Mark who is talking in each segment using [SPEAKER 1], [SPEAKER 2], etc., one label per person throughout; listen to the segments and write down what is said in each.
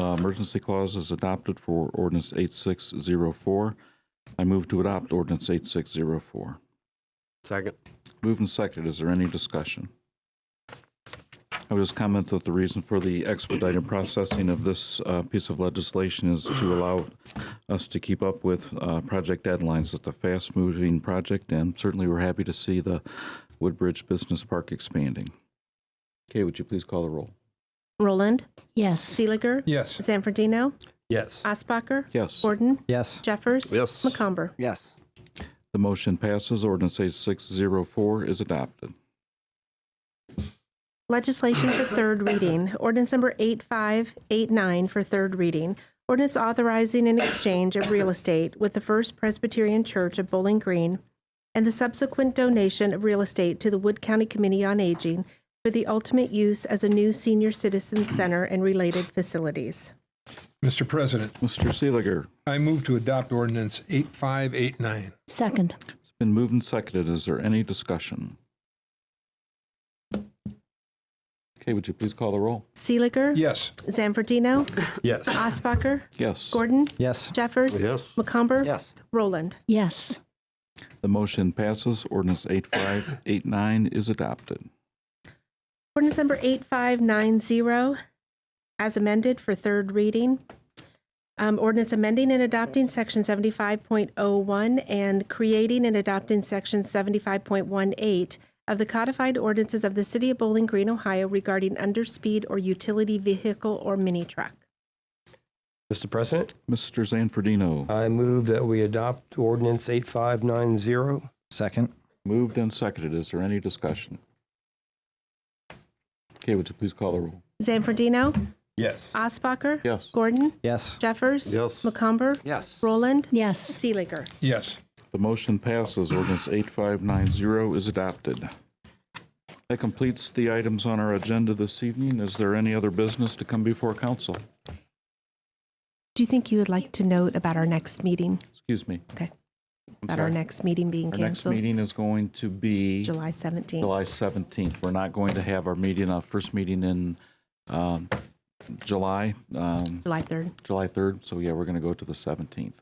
[SPEAKER 1] Uh, emergency clause is adopted for ordinance 8604. I move to adopt ordinance 8604.
[SPEAKER 2] Second.
[SPEAKER 1] Moved and seconded. Is there any discussion? I would just comment that the reason for the expedited processing of this uh, piece of legislation is to allow us to keep up with uh, project deadlines. It's a fast-moving project, and certainly we're happy to see the Woodbridge Business Park expanding. Kay, would you please call the roll?
[SPEAKER 3] Roland,
[SPEAKER 4] Yes.
[SPEAKER 3] Seeliger,
[SPEAKER 5] Yes.
[SPEAKER 3] Zanfordino,
[SPEAKER 5] Yes.
[SPEAKER 3] Osbacher,
[SPEAKER 1] Yes.
[SPEAKER 3] Gordon,
[SPEAKER 5] Yes.
[SPEAKER 3] Jeffers,
[SPEAKER 2] Yes.
[SPEAKER 3] McComber.
[SPEAKER 6] yes,
[SPEAKER 1] The motion passes. Ordinance 8604 is adopted.
[SPEAKER 3] Legislation for third reading. Ordinance number 8589 for third reading. Ordinance authorizing an exchange of real estate with the First Presbyterian Church of Bowling Green and the subsequent donation of real estate to the Wood County Committee on Aging for the ultimate use as a new senior citizen center and related facilities.
[SPEAKER 5] Mr. President,
[SPEAKER 1] Mr. Seeliger,
[SPEAKER 5] I move to adopt ordinance 8589.
[SPEAKER 4] Second.
[SPEAKER 1] it's been moved and seconded. Is there any discussion? Kay, would you please call the roll?
[SPEAKER 3] Seeliger,
[SPEAKER 5] Yes.
[SPEAKER 3] Zanfordino,
[SPEAKER 5] Yes.
[SPEAKER 3] Osbacher,
[SPEAKER 1] Yes.
[SPEAKER 3] Gordon,
[SPEAKER 6] yes,
[SPEAKER 3] Jeffers,
[SPEAKER 2] Yes.
[SPEAKER 3] McComber,
[SPEAKER 6] yes,
[SPEAKER 3] Roland.
[SPEAKER 4] Yes.
[SPEAKER 1] The motion passes. Ordinance 8589 is adopted.
[SPEAKER 3] Ordinance number 8590, as amended for third reading. Um, Ordinance amending and adopting Section 75.01 and creating and adopting Section 75.18 of the codified ordinances of the City of Bowling Green, Ohio regarding underspeed or utility vehicle or mini truck.
[SPEAKER 7] Mr. President,
[SPEAKER 1] Mr. Zanfordino,
[SPEAKER 7] I move that we adopt ordinance 8590.
[SPEAKER 6] second,
[SPEAKER 1] moved and seconded. Is there any discussion? Kay, would you please call the roll?
[SPEAKER 3] Zanfordino,
[SPEAKER 5] Yes.
[SPEAKER 3] Osbacher,
[SPEAKER 1] Yes.
[SPEAKER 3] Gordon,
[SPEAKER 6] yes,
[SPEAKER 3] Jeffers,
[SPEAKER 2] Yes.
[SPEAKER 3] McComber,
[SPEAKER 6] yes,
[SPEAKER 3] Roland,
[SPEAKER 4] Yes.
[SPEAKER 3] Seeliger.
[SPEAKER 5] Yes.
[SPEAKER 1] The motion passes. Ordinance 8590 is adopted. That completes the items on our agenda this evening. Is there any other business to come before council?
[SPEAKER 3] Do you think you would like to note about our next meeting,
[SPEAKER 1] Excuse me.
[SPEAKER 3] Okay.
[SPEAKER 1] I'm
[SPEAKER 3] about our
[SPEAKER 1] sorry.
[SPEAKER 3] next meeting being
[SPEAKER 1] Our next
[SPEAKER 3] canceled?
[SPEAKER 1] meeting is going to be
[SPEAKER 3] July 17th.
[SPEAKER 1] July 17th. We're not going to have our meeting, our first meeting in um, July, um,
[SPEAKER 3] July 3rd.
[SPEAKER 1] July 3rd. So yeah, we're going to go to the 17th.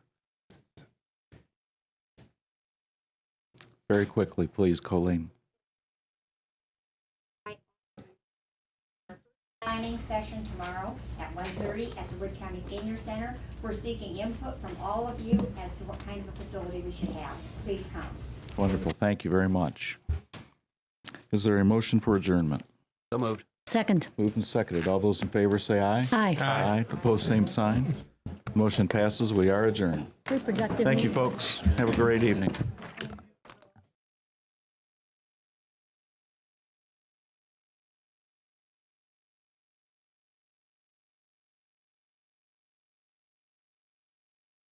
[SPEAKER 1] Very quickly, please, Colleen.
[SPEAKER 8] planning session tomorrow at 1:30 at the Wood County Senior Center. We're seeking input from all of you as to what kind of a facility we should have. Please come.
[SPEAKER 1] Wonderful. Thank you very much. Is there a motion for adjournment?
[SPEAKER 2] So moved.
[SPEAKER 4] Second.
[SPEAKER 1] Moved and seconded. All those in favor say aye.
[SPEAKER 4] Aye.
[SPEAKER 1] Aye. Opposed, same sign. Motion passes. We are adjourned.
[SPEAKER 4] Reproductive
[SPEAKER 1] Thank
[SPEAKER 4] meeting.
[SPEAKER 1] you, folks. Have a great evening.